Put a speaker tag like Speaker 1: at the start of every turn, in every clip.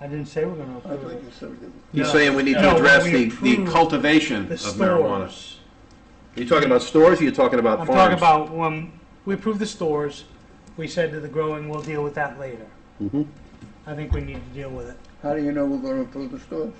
Speaker 1: I didn't say we're gonna
Speaker 2: I
Speaker 1: approve
Speaker 2: think
Speaker 1: it.
Speaker 2: it's everything.
Speaker 3: He's
Speaker 1: No.
Speaker 3: saying we need
Speaker 1: No,
Speaker 3: to address
Speaker 1: we
Speaker 3: the, the
Speaker 1: approve
Speaker 3: cultivation of
Speaker 1: The
Speaker 3: marijuana.
Speaker 1: stores.
Speaker 3: Are you talking about stores or you're talking about
Speaker 1: I'm
Speaker 3: farms?
Speaker 1: talking about when we approved the stores, we said to the growing, we'll deal with that later.
Speaker 3: Mhm.
Speaker 1: I think we need to deal with it.
Speaker 2: How do you know we're gonna approve the stores?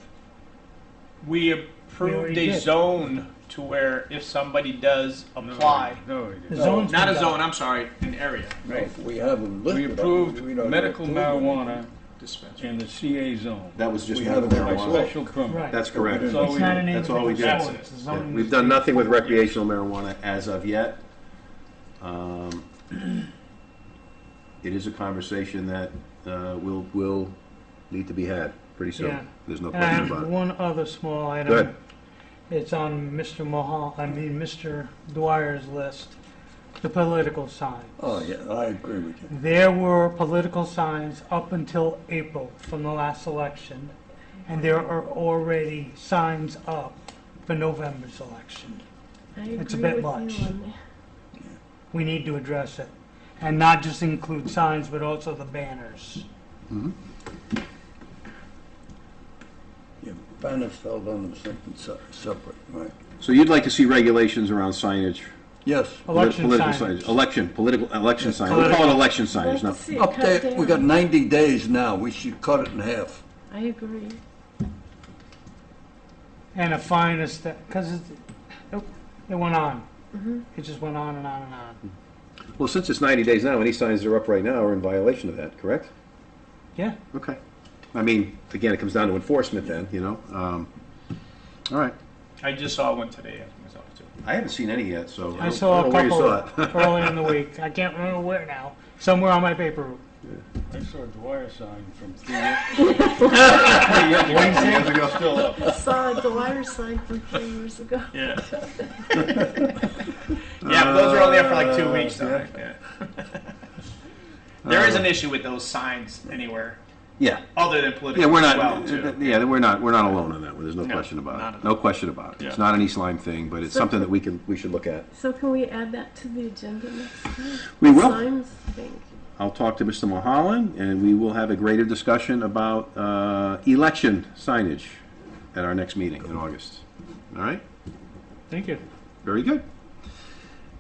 Speaker 4: We
Speaker 1: We already
Speaker 4: approved a
Speaker 1: did.
Speaker 4: zone to where if somebody does apply,
Speaker 5: No,
Speaker 1: The
Speaker 2: No,
Speaker 1: zone's
Speaker 4: not a
Speaker 1: been done.
Speaker 4: zone, I'm sorry, an area
Speaker 2: Right. We have them
Speaker 5: we
Speaker 2: listed. I mean,
Speaker 5: approved
Speaker 2: we don't
Speaker 5: medical
Speaker 2: approve them.
Speaker 5: marijuana
Speaker 4: dispensary.
Speaker 5: in the CA zone.
Speaker 3: That was just
Speaker 5: We have
Speaker 3: medical
Speaker 5: a
Speaker 3: marijuana.
Speaker 5: special permit.
Speaker 1: Right.
Speaker 3: That's correct.
Speaker 5: That's
Speaker 3: Yeah,
Speaker 5: all
Speaker 1: It's
Speaker 5: we
Speaker 1: not
Speaker 5: did.
Speaker 1: an
Speaker 3: That's all we
Speaker 1: individual
Speaker 3: did.
Speaker 1: zone, it's a zoning
Speaker 3: We've done nothing with recreational marijuana as of yet. Um, It is a conversation that uh, will, will need to be had pretty
Speaker 1: Yeah.
Speaker 3: soon. There's no
Speaker 1: And I
Speaker 3: question about
Speaker 1: have
Speaker 3: it.
Speaker 1: one other small item.
Speaker 3: Go ahead.
Speaker 1: It's on Mr. Mahal, I mean, Mr. Dwyer's list, the political signs.
Speaker 2: Oh, yeah, I agree with you.
Speaker 1: There were political signs up until April from the last election, and there are already signs up for November's election.
Speaker 6: I
Speaker 1: It's a
Speaker 6: agree
Speaker 1: bit
Speaker 6: with
Speaker 1: much.
Speaker 6: You on that.
Speaker 1: We need to address it, and not just include signs, but also the banners.
Speaker 2: Your banners fell down to something se- separate, right?
Speaker 3: So you'd like to see regulations around signage?
Speaker 2: Yes.
Speaker 3: polit-
Speaker 1: Election
Speaker 3: political
Speaker 1: signs.
Speaker 3: Election, political, election
Speaker 2: Yeah,
Speaker 3: signage. We call it
Speaker 1: political.
Speaker 3: election
Speaker 6: I'd like
Speaker 3: signage,
Speaker 6: to
Speaker 3: not
Speaker 6: see it
Speaker 2: Up
Speaker 6: cut
Speaker 2: there, we got
Speaker 6: down.
Speaker 2: 90 days now. We should cut it in half.
Speaker 6: I agree.
Speaker 1: And a fine is that, because it, it- it went on. It just went on and on and on.
Speaker 3: Well, since it's 90 days now, any signs that are up right now are in violation of that, correct?
Speaker 1: Yeah,
Speaker 3: Okay. I mean, again, it comes down to enforcement then, you know? Um, All right.
Speaker 4: I just saw one today after myself too.
Speaker 3: I haven't seen any yet, so.
Speaker 1: I saw a
Speaker 3: don't know where you
Speaker 1: couple
Speaker 3: saw it.
Speaker 1: early in the week. I can't remember where now. Somewhere on my paper route.
Speaker 5: I saw a Dwyer sign from three years three years ago, still
Speaker 3: uh,
Speaker 5: up.
Speaker 6: I saw the wire sign from three years ago.
Speaker 4: Yeah. yeah, but those are only there for like two weeks though. right? Yeah. There is an issue with those signs anywhere
Speaker 3: Yeah,
Speaker 4: other than political.
Speaker 3: yeah, we're
Speaker 4: Well,
Speaker 3: not,
Speaker 4: too.
Speaker 3: yeah, we're not, we're not alone on that one, there's no
Speaker 4: No,
Speaker 3: question
Speaker 4: not
Speaker 3: about
Speaker 4: at
Speaker 3: it. No question about it. It's
Speaker 4: Yeah.
Speaker 3: not an East Lyme thing, but it's
Speaker 6: So-
Speaker 3: something that we can, we should look at.
Speaker 6: So can we add that to the agenda next time?
Speaker 3: We will.
Speaker 6: Signs thing.
Speaker 3: I'll talk to Mr. Mulholland, and we will have a greater discussion about uh, election signage at our next meeting in August. All right?
Speaker 1: Thank you.
Speaker 3: Very good.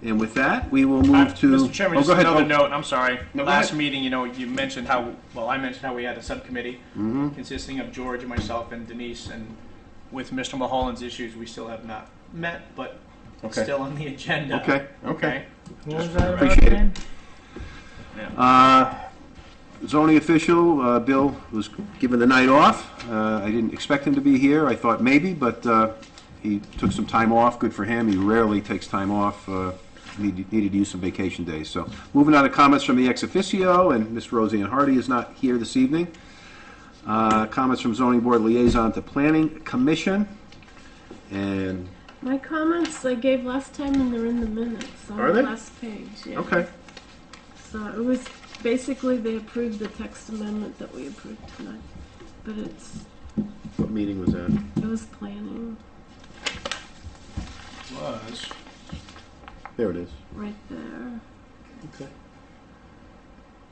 Speaker 3: And with that, we will
Speaker 4: Uh,
Speaker 3: move to.
Speaker 4: Mr. Chairman,
Speaker 3: Oh,
Speaker 4: just
Speaker 3: go ahead.
Speaker 4: another
Speaker 3: Oh,
Speaker 4: note, I'm sorry.
Speaker 3: No, go
Speaker 4: Last
Speaker 3: ahead.
Speaker 4: meeting, you know, you mentioned how, well, I mentioned how we had a subcommittee
Speaker 3: Mm-hmm.
Speaker 4: consisting of George and myself and Denise, and with Mr. Mulholland's issues, we still have not met, but it's
Speaker 3: Okay.
Speaker 4: still on the agenda.
Speaker 3: Okay, okay.
Speaker 4: Okay?
Speaker 1: What was that about
Speaker 3: Appreciate it.
Speaker 1: again?
Speaker 3: Uh, Zoning official, uh, Bill was given the night off. Uh, I didn't expect him to be here. I thought maybe, but uh, he took some time off. Good for him. He rarely takes time off. uh, Needed needed to use some vacation days. So moving on to comments from the ex officio, and Miss Roseanne Hardy is not here this evening. Uh, Comments from zoning board liaison to planning commission. And,
Speaker 6: My comments I gave last time and they're in the minutes on
Speaker 3: Are
Speaker 6: the
Speaker 3: they?
Speaker 6: last page. Yeah.
Speaker 3: okay.
Speaker 6: So it was basically they approved the text amendment that we approved tonight, but it's
Speaker 3: What meeting was that?
Speaker 6: it was planning
Speaker 4: Was.
Speaker 3: There it is.
Speaker 6: right there
Speaker 3: Okay.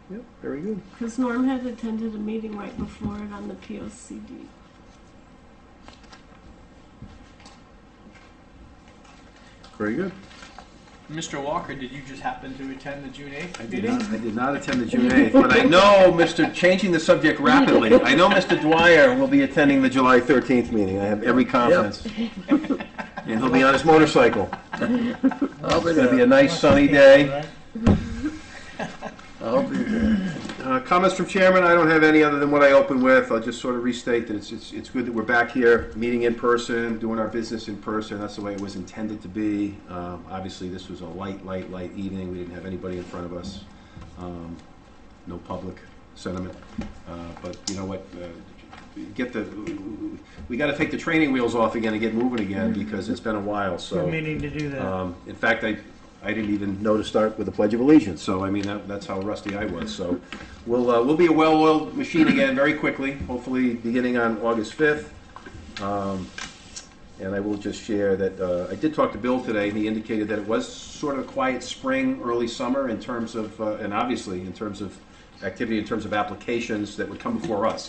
Speaker 3: Yep, very good.
Speaker 6: because Norm had attended a meeting right before it on the POCD.
Speaker 3: Very good.
Speaker 4: Mr. Walker, did you just happen to attend the June 8th
Speaker 3: I
Speaker 4: meeting?
Speaker 3: did not, I did not attend the June 8th, but I know, Mr., changing the subject rapidly, I know Mr. Dwyer will be attending the July 13th meeting. I have every confidence. And he'll be on his motorcycle.
Speaker 2: I'll be
Speaker 3: It's going to be a
Speaker 2: there.
Speaker 3: nice sunny day.
Speaker 1: Right?
Speaker 2: I'll be there.
Speaker 3: Uh, Comments from chairman, I don't have any other than what I opened with. I'll just sort of restate that it's, it's, it's good that we're back here, meeting in person, doing our business in person. That's the way it was intended to be. Um, Obviously, this was a light, light, light evening. We didn't have anybody in front of us. Um, No public sentiment. Uh, But you know what? uh, Get the, we gotta take the training wheels off again and get moving again because it's been a while, so.
Speaker 1: We're meaning to do that.
Speaker 3: Um, In fact, I, I didn't even know to start with the Pledge of Allegiance, so I mean, that- that's how rusty I was. So we'll, uh, we'll be a well-oiled machine again very quickly, hopefully beginning on August 5th. Um, And I will just share that, uh, I did talk to Bill today, and he indicated that it was sort of a quiet spring, early summer in terms of, uh, and obviously in terms of activity, in terms of applications that would come before us.